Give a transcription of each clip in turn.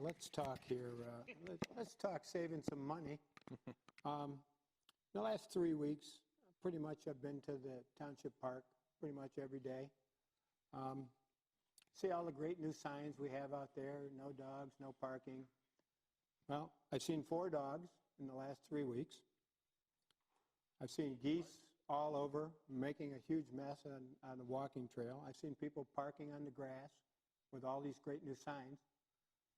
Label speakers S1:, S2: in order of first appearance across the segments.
S1: let's talk here, uh, let- let's talk saving some money. Um, The last three weeks, pretty much I've been to the Township Park pretty much every day. Um, See all the great new signs we have out there, no dogs, no parking. Well, I've seen four dogs in the last three weeks. I've seen geese all over, making a huge mess on, on the walking trail. I've seen people parking on the grass with all these great new signs.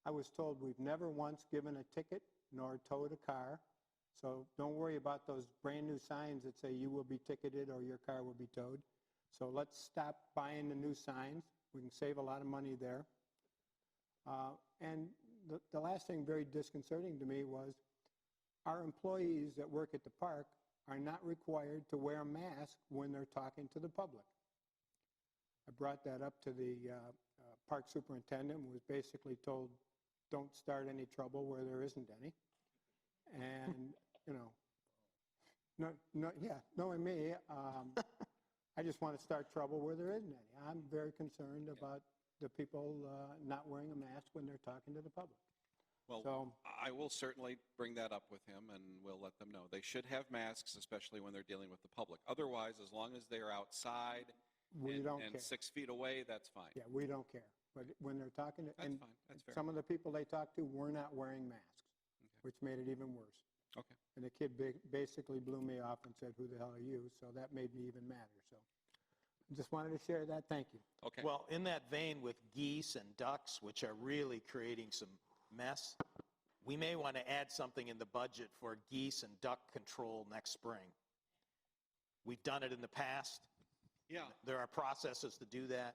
S1: I was told we've never once given a ticket nor towed a car, so don't worry about those brand-new signs that say you will be ticketed or your car will be towed. So let's stop buying the new signs. We can save a lot of money there. Uh, And the, the last thing very disconcerting to me was our employees that work at the park are not required to wear a mask when they're talking to the public. I brought that up to the uh, uh, park superintendent, and was basically told, don't start any trouble where there isn't any. And, you know, no, no, yeah, knowing me, um, I just want to start trouble where there isn't any. I'm very concerned about the people uh, not wearing a mask when they're talking to the public.
S2: Well,
S1: So,
S2: I will certainly bring that up with him and we'll let them know. They should have masks, especially when they're dealing with the public. Otherwise, as long as they're outside
S1: we
S2: and-
S1: don't care.
S2: and six feet away, that's fine.
S1: Yeah, we don't care. But when they're talking, to-
S2: That's
S1: and
S2: fine, that's fair.
S1: some of the people they talked to were not wearing masks, which made it even worse.
S2: Okay.
S1: And the kid ba- basically blew me off and said, who the hell are you? So that made me even madder, so. Just wanted to share that, thank you.
S2: Okay.
S3: Well, in that vein with geese and ducks, which are really creating some mess, we may want to add something in the budget for geese and duck control next spring. We've done it in the past.
S2: Yeah,
S3: There are processes to do that.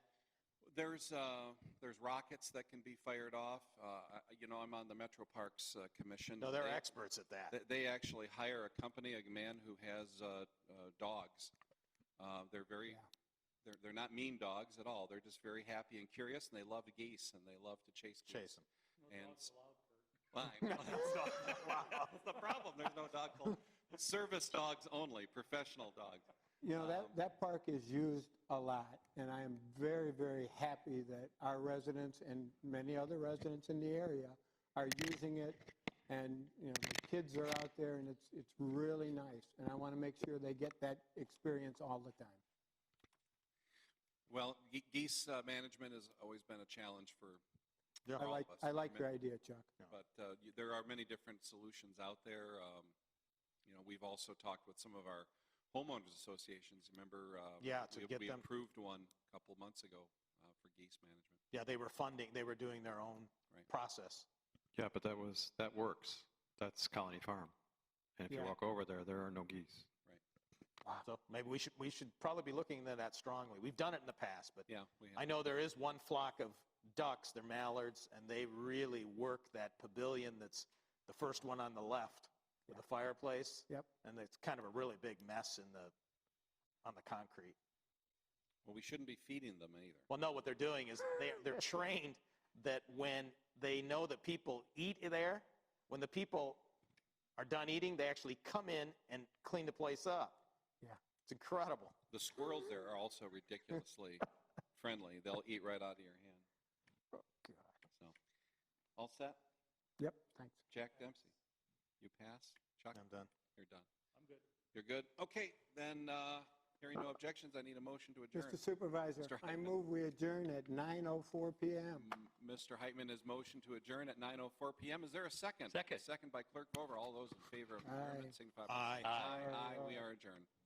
S2: there's, uh, there's rockets that can be fired off. Uh, I- you know, I'm on the Metro Parks uh, Commission.
S3: No, they're
S2: They-
S3: experts at that.
S2: They- They actually hire a company, a man who has uh, uh, dogs. Uh, They're very,
S1: Yeah.
S2: they're, they're not mean dogs at all. They're just very happy and curious, and they love geese, and they love to chase geese.
S3: Chase 'em.
S2: And s- Fine. Well, that's not- wow. That's the problem. There's no dog called service dogs only, professional dogs.
S1: You know, that,
S2: Um,
S1: that park is used a lot, and I am very, very happy that our residents and many other residents in the area are using it, and, you know, the kids are out there, and it's, it's really nice, and I want to make sure they get that experience all the time.
S2: Well, ge- geese uh, management has always been a challenge for
S3: Yeah.
S2: for
S1: I
S2: all
S1: like,
S2: of us.
S1: I like
S2: mean,
S1: your idea, Chuck.
S2: But uh, you- there are many different solutions out there. Um, You know, we've also talked with some of our homeowners associations. Remember? uh,
S3: Yeah, to
S2: we-
S3: get
S2: We
S3: them-
S2: approved one a couple months ago uh, for geese management.
S3: Yeah, they were funding, they were doing their own
S2: Right.
S3: process.
S4: Yeah, but that was, that works. That's Colony Farm. And if you
S1: Yeah.
S4: walk over there, there are no geese.
S3: So maybe we should, we should probably be looking into that strongly. We've done it in the past, but
S2: Yeah, we
S3: I
S2: have.
S3: know there is one flock of ducks, they're mallards, and they really work that pavilion that's the first one on the left with the fireplace.
S1: Yep.
S3: And it's kind of a really big mess in the, on the concrete.
S2: Well, we shouldn't be feeding them either.
S3: Well, no, what they're doing is they're, they're trained that when they know that people eat there, when the people are done eating, they actually come in and clean the place up.
S1: Yeah.
S3: It's incredible.
S2: The squirrels there are also ridiculously friendly. They'll eat right out of your hand.
S3: Oh,
S2: So, all set?
S1: Yep, thanks.
S2: Jack Dempsey, you pass? Chuck,
S3: I'm done.
S2: you're done. I'm good. You're good? Okay, then, uh, hearing no objections, I need a motion to adjourn.
S1: Mr. Supervisor,
S2: Mr.
S1: I
S2: Hyman.
S1: move we adjourn at 9:04 PM.
S2: M- Mr. Heitman has motioned to adjourn at 9:04 PM. Is there a second?
S4: Second.
S2: Second by Clerk Bover. All those in favor of
S1: Aye.
S2: adjournment signify by...
S3: Aye.
S2: Aye,
S1: Aye.
S2: aye, we are adjourned.